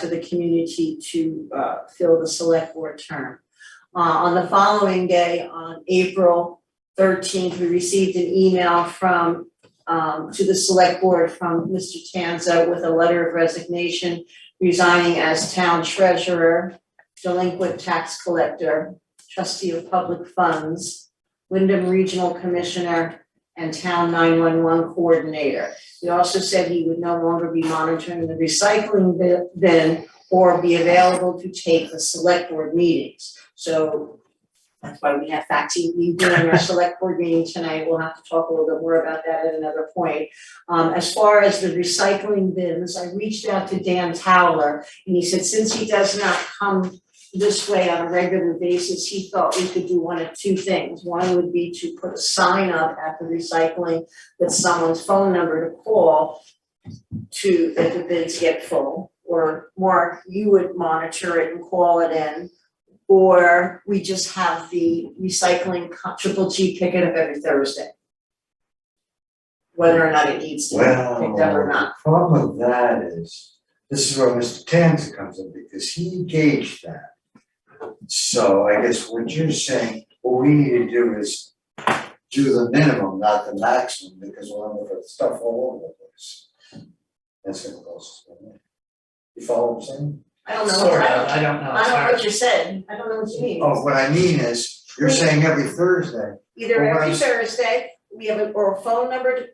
to the community to uh fill the select board term. Uh, on the following day, on April thirteenth, we received an email from um to the select board from Mr. Tanza with a letter of resignation resigning as town treasurer, delinquent tax collector, trustee of public funds, Wyndham Regional Commissioner, and town nine-one-one coordinator. He also said he would no longer be monitoring the recycling bi- bin or be available to take the select board meetings. So that's why we have Faxi, we doing our select board meeting tonight, we'll have to talk a little bit more about that at another point. Um, as far as the recycling bins, I reached out to Dan Towler, and he said since he does not come this way on a regular basis, he thought we could do one of two things. One would be to put a sign up at the recycling with someone's phone number to call to, that the bins get full, or Mark, you would monitor it and call it in. Or we just have the recycling co- triple G pick it up every Thursday. Whether or not it needs to be picked up or Well, not. the problem with that is, this is where Mr. Tanza comes in, because he gauged that. So I guess what you're saying, what we need to do is do the minimum, not the maximum, because we'll end up with stuff all over the place. That's gonna cost us money. You follow what I'm saying? I don't know, Sort I of, don't, I don't know, I it's don't know hard. what you said, I don't know what you mean. Oh, what I mean is, you're saying every Thursday, Either Well, every right. Thursday, we have a, or a phone number to,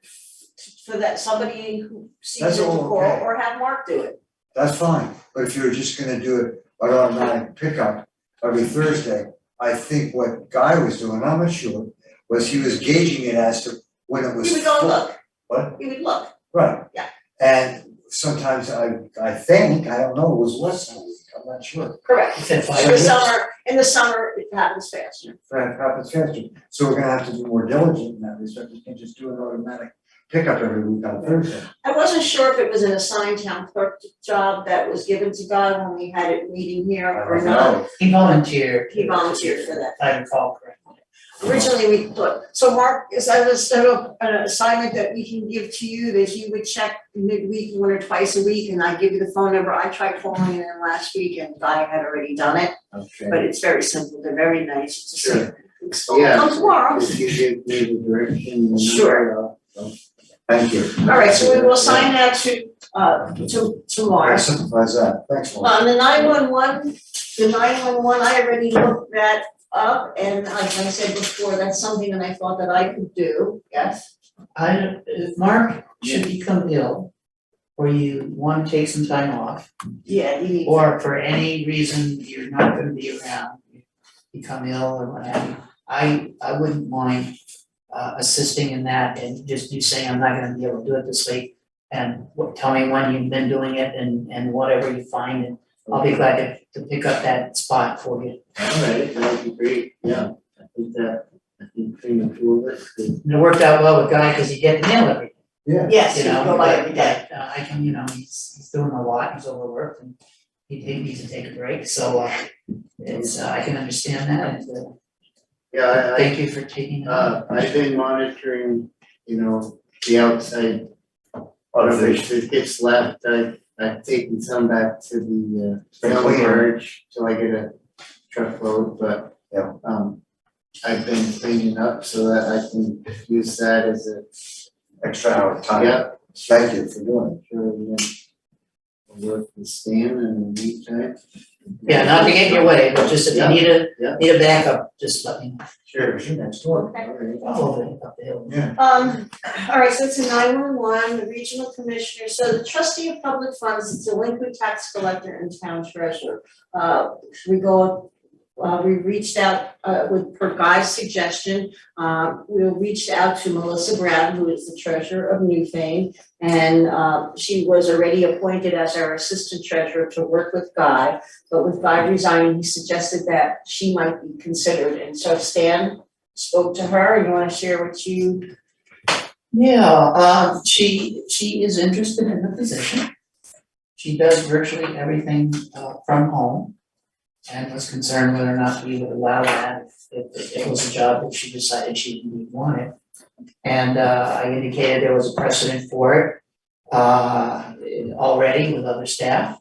for that, somebody who sees That's it to all call, okay. or have Mark do it. that's fine, but if you're just gonna do it by automatic pickup every Thursday, I think what Guy was doing, I'm not sure, was he was gauging it as to when it was. He would go full. look. What? He would look. Right. Yeah. And sometimes I, I think, I don't know, it was less than a week, I'm not sure, Correct. He said In the five. So- summer, in the summer, it happens faster. that happens faster. So we're gonna have to be more diligent in that respect, we can't just do an automatic pickup every week on Thursday. I wasn't sure if it was an assigned town clerk job that was given to Guy when we had it meeting here I or don't not. know. He volunteered. He volunteered for that. If I recall correctly. Originally, we thought, so Mark, is that a sort of an assignment that we can give to you that you would check midweek, one or twice a week, and I give you the phone number? I tried calling in last week and Guy had already done it, Okay. but it's very simple. They're very nice. It's just Sure. it's all come tomorrow. If you give me the direction. Sure. Thank you. All right, so we will sign that to, uh, to, to That Mars. simplifies that, thanks, Laura. On the nine one one, the nine one one, I already looked that up, and like I said before, that's something that I thought that I could do, yes? I, don't- if Mark should become ill, or you wanna take some time off, Yeah, you need, or for any reason you're not gonna be around, you become ill or what have you, I, I wouldn't mind uh, assisting in that and just you saying, I'm not gonna be able to do it this week, and what, tell me when you've been doing it and, and whatever you find, and I'll be glad to, to pick up that spot for you. Alright, that'd be great, yeah, I think that, I think pretty much all of us could. And it worked out well with Guy, cause he get the mail every Yeah. yes, you you know, go by every day. but, uh, I can, you know, he's, he's doing a lot, he's overworked and he, he needs to take a break, so, uh, it's, uh, I can understand that, and, Yeah, uh, I, thank you for taking I, it. on. uh, I've been monitoring, you know, the outside rubbish that gets left, I, I've taken some back to the, uh, Been town cleaner. barge till I get a truckload, but Yeah. um, I've been cleaning up so that I can use that as a, Extra hour of time. yeah, Thank you for doing it. sure, and then I'll work with Stan in the meantime. Yeah, not to get in your way, but just if you Yeah, need a, yeah. need a backup, just let me know, Sure. Here's your next door. Okay. I'm over up the hill. Yeah. Um, all right, so it's a nine one one, the regional commissioner, so the trustee of public funds, is delinquent tax collector and town treasurer. Uh, we go, uh, we reached out, uh, with, per Guy's suggestion, uh, we reached out to Melissa Brown, who is the treasurer of Newfane. And, uh, she was already appointed as our assistant treasurer to work with Guy. But with Guy resigning, he suggested that she might be considered, and so Stan spoke to her, and you wanna share what you Yeah, um, she, she is interested in the position. She does virtually everything, uh, from home. And was concerned whether or not we would allow that, if, if it was a job that she decided she didn't want it. And, uh, I indicated there was a precedent for it, uh, already with other staff.